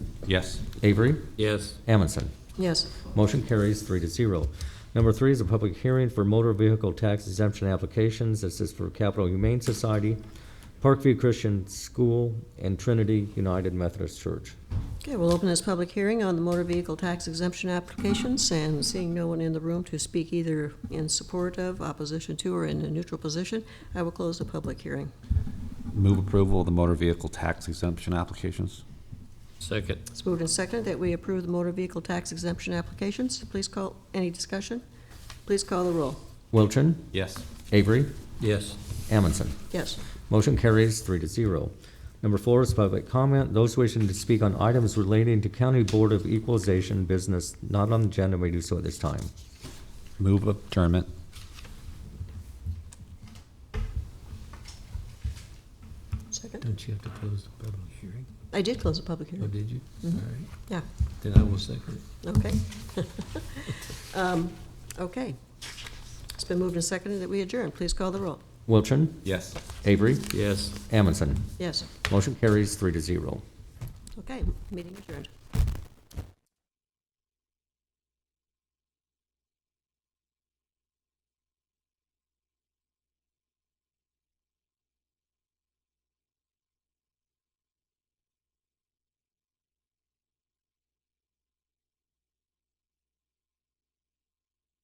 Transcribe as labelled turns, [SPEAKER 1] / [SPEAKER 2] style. [SPEAKER 1] Yes.
[SPEAKER 2] Avery?
[SPEAKER 3] Yes.
[SPEAKER 2] Amundson?
[SPEAKER 4] Yes.
[SPEAKER 2] Motion carries three to zero. Number three is a public hearing for motor vehicle tax exemption applications. This is for Capital Humane Society, Parkview Christian School, and Trinity United Methodist Church.
[SPEAKER 4] Okay, we'll open this public hearing on the motor vehicle tax exemption applications, and seeing no one in the room to speak either in support of, opposition to, or in a neutral position, I will close the public hearing.
[SPEAKER 1] Move approval of the motor vehicle tax exemption applications.
[SPEAKER 3] Second.
[SPEAKER 4] It's moved and seconded that we approve the motor vehicle tax exemption applications. Please call, any discussion? Please call the roll.
[SPEAKER 2] Wilchin?
[SPEAKER 1] Yes.
[SPEAKER 2] Avery?
[SPEAKER 3] Yes.
[SPEAKER 2] Amundson?
[SPEAKER 4] Yes.
[SPEAKER 2] Motion carries three to zero. Number four is public comment. Those wishing to speak on items relating to County Board of Equalization business not on the agenda may do so at this time.
[SPEAKER 1] Move adjournment.
[SPEAKER 4] Second.
[SPEAKER 3] Don't you have to close the public hearing?
[SPEAKER 4] I did close the public
[SPEAKER 3] Oh,
[SPEAKER 4] hearing.
[SPEAKER 3] did you? All right.
[SPEAKER 4] Yeah,
[SPEAKER 3] Then I will second it.
[SPEAKER 4] okay. Um, Okay. It's been moved and seconded that we adjourn. Please call the roll.
[SPEAKER 2] Wilchin?
[SPEAKER 1] Yes.
[SPEAKER 2] Avery?
[SPEAKER 3] Yes.
[SPEAKER 2] Amundson?
[SPEAKER 4] Yes.
[SPEAKER 2] Motion carries three to zero.
[SPEAKER 4] Okay, meeting adjourned.